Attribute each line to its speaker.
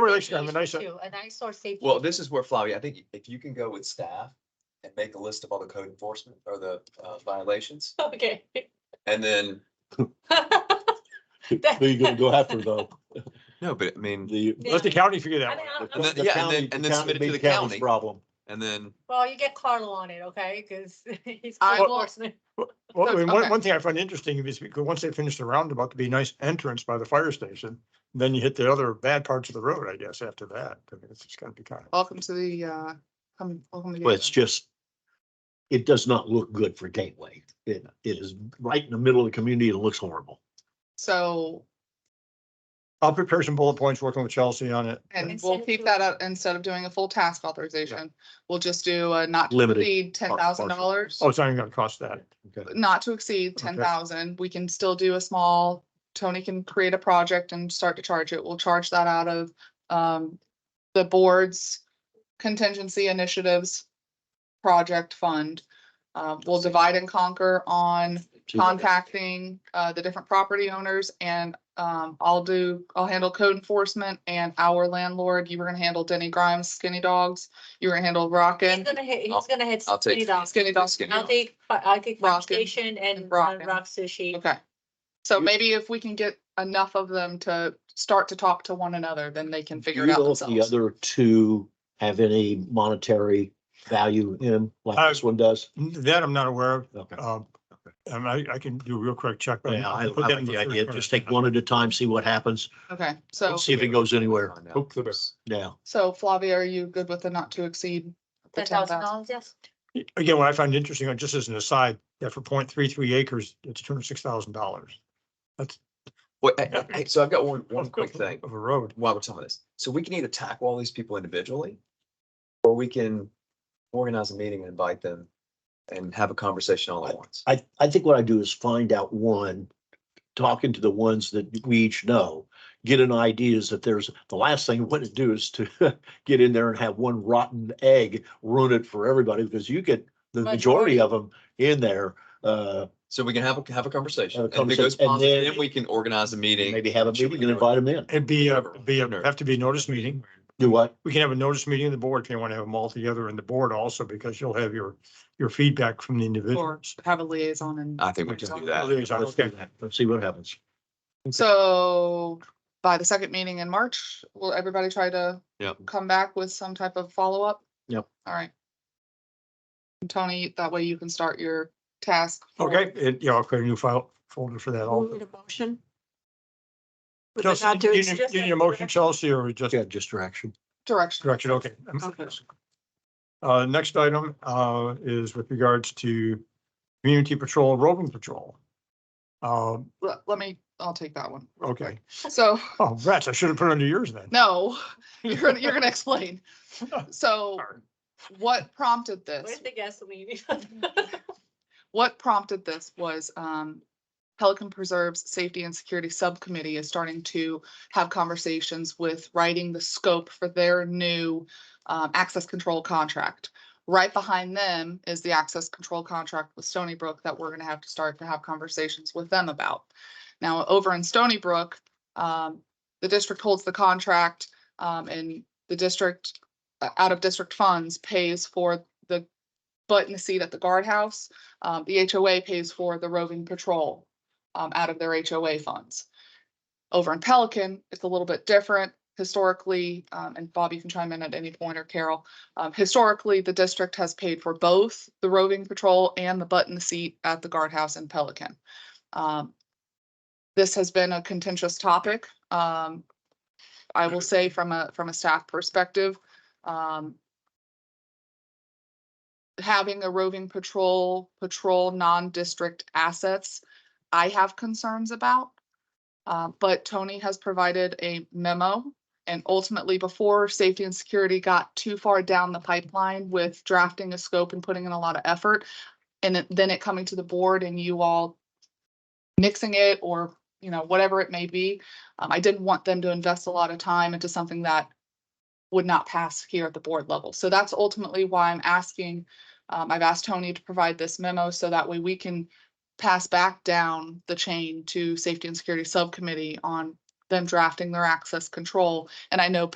Speaker 1: relation, I mean, uh, I said,
Speaker 2: Too, And I saw safety.
Speaker 3: Well, this is where Flavia, I think if you can go with staff and make a list of all the code enforcement or the uh, violations,
Speaker 2: Okay.
Speaker 3: and then.
Speaker 4: Who who you gonna go after though?
Speaker 3: No, but I mean,
Speaker 4: The.
Speaker 2: Yeah.
Speaker 1: let the county figure that
Speaker 2: I
Speaker 1: one.
Speaker 2: mean, I'm-
Speaker 4: the-
Speaker 2: I'm-
Speaker 3: then-
Speaker 4: the
Speaker 3: yeah, and
Speaker 4: county-
Speaker 3: then- and then
Speaker 4: county-
Speaker 3: submit it to
Speaker 4: big
Speaker 3: the
Speaker 4: county's
Speaker 3: county.
Speaker 4: Problem.
Speaker 3: and then,
Speaker 2: Well, you get Carlo on it, okay? Because he's.
Speaker 5: I
Speaker 2: code
Speaker 5: will-
Speaker 2: enforcement.
Speaker 1: Well, I mean, one,
Speaker 5: Okay.
Speaker 1: one thing I find interesting is because once they finish the roundabout, there'd be a nice entrance by the fire station. Then you hit the other bad parts of the road, I guess, after that. I mean, it's just gonna be kind of.
Speaker 5: Welcome to the, uh, come, welcome to.
Speaker 4: Well, it's
Speaker 5: Gateway.
Speaker 4: just, it does not look good for Gateway. It, it is right in the middle of the community and it looks horrible.
Speaker 5: So,
Speaker 1: I'll prepare some bullet points, working with Chelsea on it.
Speaker 5: and
Speaker 2: Instead
Speaker 5: we'll
Speaker 2: of
Speaker 5: keep
Speaker 2: doing-
Speaker 5: that up, instead of doing a full task authorization, we'll just do a not to
Speaker 4: Limited,
Speaker 5: exceed ten thousand dollars.
Speaker 1: Oh, it's not even gonna cost that.
Speaker 5: Not to exceed
Speaker 1: Okay.
Speaker 5: ten thousand, we can still do a small, Tony can create a project and start to charge it, we'll charge that out of, um, the board's contingency initiatives project fund. Uh, we'll divide and conquer on contacting uh the different property owners and um I'll do, I'll handle code enforcement and our landlord. You were gonna handle Denny Grimes, Skinny Dogs. You were gonna handle
Speaker 2: He's
Speaker 5: Rockin',
Speaker 2: gonna hit,
Speaker 3: I'll-
Speaker 2: he's gonna hit.
Speaker 3: I'll take-
Speaker 2: Skinny Dog.
Speaker 5: Skinny Dogs.
Speaker 3: Skinny
Speaker 2: I'll take, fi- I'll take Fire
Speaker 5: Rockin'
Speaker 2: Station and
Speaker 5: and
Speaker 2: uh,
Speaker 5: Rockin'.
Speaker 2: Rock Sushi.
Speaker 5: Okay. So maybe if we can get enough of them to start to talk to one another, then they can figure it out
Speaker 4: Do The
Speaker 5: themselves.
Speaker 4: other two have any monetary value in,
Speaker 1: Uh,
Speaker 4: like this one does?
Speaker 1: That I'm not aware of.
Speaker 4: Okay.
Speaker 1: Um, and I, I can do a real quick check. but
Speaker 4: Yeah, Uh, I I
Speaker 1: put that
Speaker 4: like
Speaker 1: in
Speaker 4: the
Speaker 1: third
Speaker 4: idea.
Speaker 1: quarter.
Speaker 4: Just take one at a time, see what happens,
Speaker 5: Okay, so,
Speaker 4: see if it goes anywhere.
Speaker 3: Find out.
Speaker 1: Poke the bear.
Speaker 4: Yeah.
Speaker 5: so Flavia, are you good with the not to exceed? the
Speaker 2: Ten thousand
Speaker 5: 10,000?
Speaker 2: dollars, yes.
Speaker 1: Again, what I find interesting, uh, just as an aside, that for 0.33 acres, it's two hundred six thousand dollars.
Speaker 3: Wait, hey, hey, hey, so I've got one, one quick thing
Speaker 1: Of a road.
Speaker 3: while we're talking about this. So we can either tackle all these people individually, or we can organize a meeting and invite them and have a conversation all at once.
Speaker 4: I, I think what I do is find out one, talking to the ones that we each know, get an idea is that there's, the last thing I want to do is to get in there and have one rotten egg ruin it for everybody because you get the majority of them in there. Uh,
Speaker 3: So we can have, a have a conversation.
Speaker 4: Have a
Speaker 3: and If it goes
Speaker 4: conversation, and
Speaker 3: positive,
Speaker 4: then-
Speaker 3: then we can organize a meeting.
Speaker 4: maybe have a meeting and invite them in.
Speaker 1: It'd be, a
Speaker 3: Whatever.
Speaker 1: be, a
Speaker 3: Whatever.
Speaker 1: have to be a notice meeting.
Speaker 4: Do what?
Speaker 1: We can have a notice meeting of the board if you want to have them all together and the board also, because you'll have your, your feedback from the
Speaker 5: Or
Speaker 1: individuals.
Speaker 5: have a liaison and.
Speaker 3: I think we can do that.
Speaker 1: Liaison,
Speaker 4: Let's do
Speaker 1: okay.
Speaker 4: that. Let's see what happens.
Speaker 5: So by the second meeting in March, will everybody try to?
Speaker 3: Yep.
Speaker 5: Come back with some type of follow-up?
Speaker 4: Yep.
Speaker 5: All right. And Tony, that way you can start your task. for-
Speaker 1: Okay, it, yeah, I'll create a new file folder for that
Speaker 6: Move
Speaker 1: also.
Speaker 6: the motion. With the
Speaker 1: Chelsea,
Speaker 6: not to
Speaker 1: you need-
Speaker 6: exceed-
Speaker 1: you need a motion, Chelsea, or just
Speaker 4: Yeah, just direction.
Speaker 5: Direction.
Speaker 1: direction, okay.
Speaker 6: Okay.
Speaker 1: Uh, next item, uh, is with regards to community patrol, roving patrol. Um,
Speaker 5: Let, let me, I'll take that one.
Speaker 1: okay,
Speaker 5: So,
Speaker 1: oh, rats, I should have put it under yours then.
Speaker 5: no, you're, gonna you're gonna explain. So what prompted this?
Speaker 2: Where's the gasoline?
Speaker 5: what prompted this was um, Pelican Preserve's Safety and Security Subcommittee is starting to have conversations with writing the scope for their new um, access control contract. Right behind them is the access control contract with Stony Brook that we're going to have to start to have conversations with them about. Now, over in Stony Brook, um, the district holds the contract um, and the district, uh, out of district funds pays for the butt in the seat at the guardhouse. Um, the HOA pays for the roving patrol, um, out of their HOA funds. Over in Pelican, it's a little bit different historically, um, and Bob, you can chime in at any point or Carol. Um, historically, the district has paid for both the roving patrol and the butt in the seat at the guardhouse in Pelican. Um, this has been a contentious topic. Um, I will say from a, from a staff perspective, um, having a roving patrol, patrol non-district assets, I have concerns about. Uh, but Tony has provided a memo and ultimately before safety and security got too far down the pipeline with drafting a scope and putting in a lot of effort. And it- then it coming to the board and you all mixing it or, you know, whatever it may be. Um, I didn't want them to invest a lot of time into something that would not pass here at the board level. So that's ultimately why I'm asking um, I've asked Tony to provide this memo so that way we can pass back down the chain to Safety and Security Subcommittee on them drafting their access control. And I know